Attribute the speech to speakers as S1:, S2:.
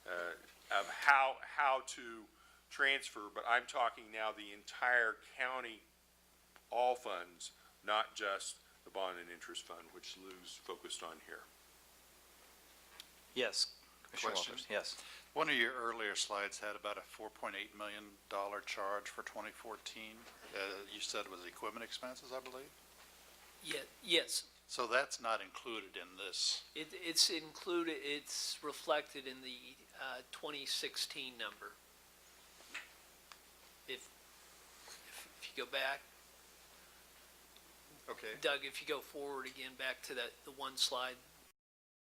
S1: uh, how, how to transfer, but I'm talking now the entire county, all funds, not just the bond and interest fund, which Lou's focused on here.
S2: Yes. Commissioner
S3: Question?
S2: Walters, Yes.
S3: One of your earlier slides had about a $4.8 million charge for 2014. uh, You said it was equipment expenses, I believe?
S4: Ye- Yes,
S3: So that's not included in this.
S4: it, it's included, it's reflected in the, uh, twenty sixteen number. If, if if you go back,
S3: Okay.
S4: Doug, if you go forward again, back to that, the one slide